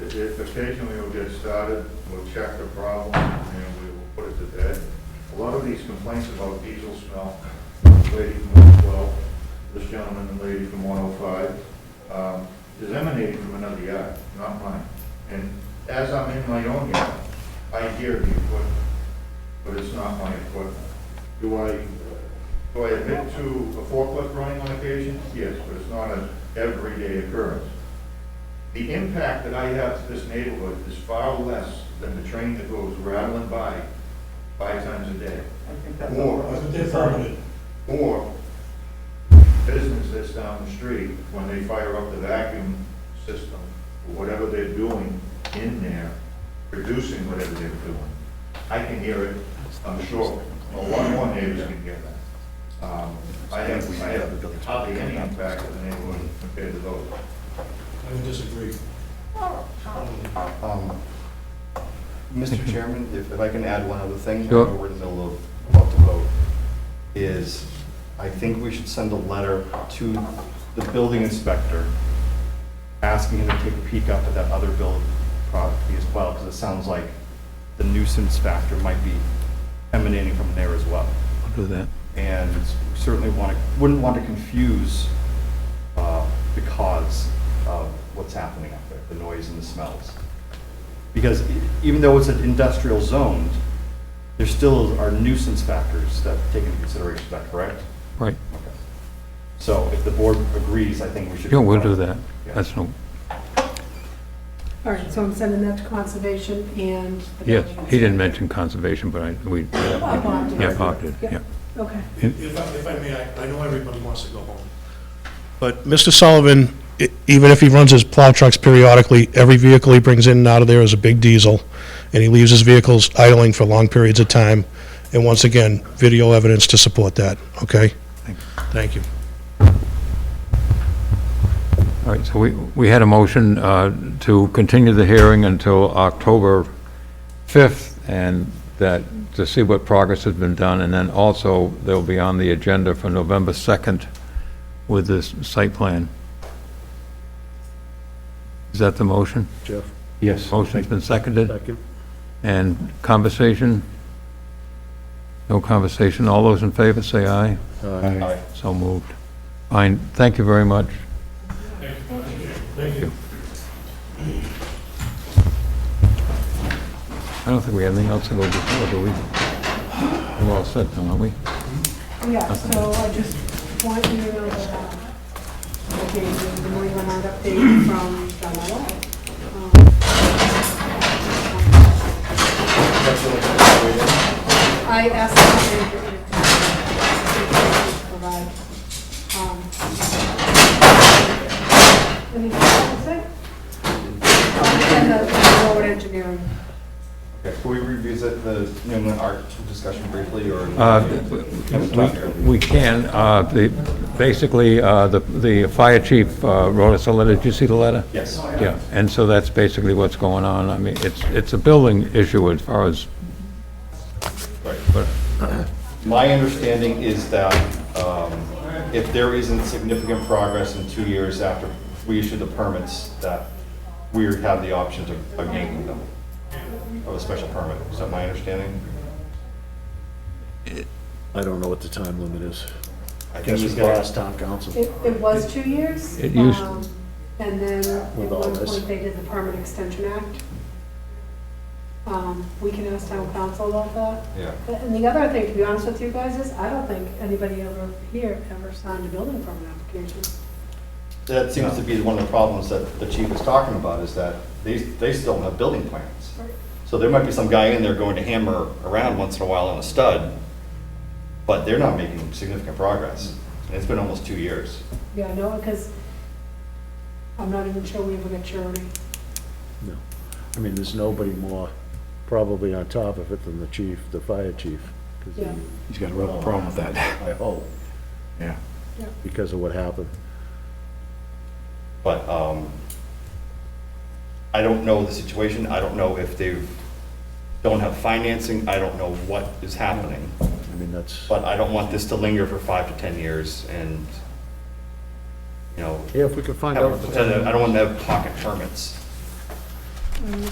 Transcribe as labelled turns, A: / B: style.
A: If, if occasionally it'll get started, we'll check the problem and we will put it to bed. A lot of these complaints about diesel smell, the lady from 112, this gentleman and lady from 105, um, is emanating from another yard, not mine. And as I'm in my own yard, I hear the equipment, but it's not my equipment. Do I, do I admit to a forklift running on occasion? Yes, but it's not an everyday occurrence. The impact that I have to this neighborhood is far less than the train that goes rattling by five times a day.
B: I think that's.
A: Or-
B: all right.
C: But they're permanent.
A: Or business that's down the street, when they fire up the vacuum system, or whatever they're doing in there, producing whatever they're doing. I can hear it, I'm sure. Well, one, one neighbors can hear that. Um, I have, I have hardly any impact on the neighborhood compared to those.
C: I would disagree.
D: Um, Mr. Chairman, if if I can add one other thing, I
E: Sure.
D: know we're in the middle of, about to vote, is I think we should send a letter to the building inspector asking him to take a peek up at that other building property as well, because it sounds like the nuisance factor might be emanating from there as well.
E: I'll do that.
D: And we certainly want to, wouldn't want to confuse uh, the cause of what's happening up there, the noise and the smells. Because e- even though it's an industrial zone, there still are nuisance factors that take into consideration, is that correct?
E: Right.
D: Okay. So if the board agrees, I think we should.
E: Yeah, we'll do that.
D: Yeah.
E: That's no,
F: All right, so I'm sending that to conservation and. the
E: yes,
F: building
E: he didn't
F: inspector.
E: mention conservation, but I, we,
F: Oh, Bob did.
E: yeah, Bob did,
F: Yep.
E: yeah.
F: Okay.
C: If I, if I may, I, I know everybody wants to go home. But Mr. Sullivan, e- even if he runs his plow trucks periodically, every vehicle he brings in and out of there is a big diesel, and he leaves his vehicles idling for long periods of time. And once again, video evidence to support that, okay? Thank you.
E: All right, so we, we had a motion uh, to continue the hearing until October 5th, and that, to see what progress has been done, and then also, they'll be on the agenda for November 2nd with this site plan. Is that the motion?
G: Jeff?
E: Yes. Motion's been seconded?
G: Second.
E: And conversation? No conversation. All those in favor, say aye.
D: Aye.
E: So moved. Fine, thank you very much.
C: Thank you.
E: I don't think we have anything else to go before, do we? We're all set now, aren't we?
F: Yeah, so I just want you to know that uh, I gave you the New England Art update from Um, John I asked them to provide. um, Anything else to say? Oh, I'll send that to Forward Engineering.
D: Okay, Can we revisit the New England art discussion briefly, or?
E: Uh,
D: Can we talk here?
E: We can, uh, the, basically, uh, the, the fire chief uh, wrote us a letter, did you see the letter?
D: Yes.
E: Yeah, and so that's basically what's going on, I mean, it's, it's a building issue as far as, but,
D: My understanding is that um, if there isn't significant progress in two years after we issue the permits, that we have the option to of yanking them, of a special permit. Is that my understanding?
G: I don't know what the time limit is.
D: I think
G: Guess
D: he's
G: it's
D: got
G: last town council.
F: It, it was two years.
E: It used-
F: um, And then at
G: With all
F: one
G: this.
F: point, they did the Permit Extension Act. Um, We can ask town council about that.
D: Yeah.
F: And the other thing, to be honest with you guys, is I don't think anybody over here ever signed a building permit application.
D: That seems to be one of the problems that the chief was talking about, is that they, they still don't have building plans. So there might be some guy in there going to hammer around once in a while on a stud, but they're not making significant progress. And it's been almost two years.
F: Yeah, no, because I'm not even sure we ever got surety.
G: No. I mean, there's nobody more probably on top of it than the chief, the fire chief. 'cause he-
F: Yeah.
G: He's got a real problem with that. I hope.
D: Yeah.
G: Because of what happened.
D: But um, I don't know the situation, I don't know if they don't have financing, I don't know what is happening.
G: I mean, that's,
D: But I don't want this to linger for five to 10 years and, you know,
G: yeah, if we could find
D: have a
G: out.
D: potential- I don't want to have pocket permits.
F: um,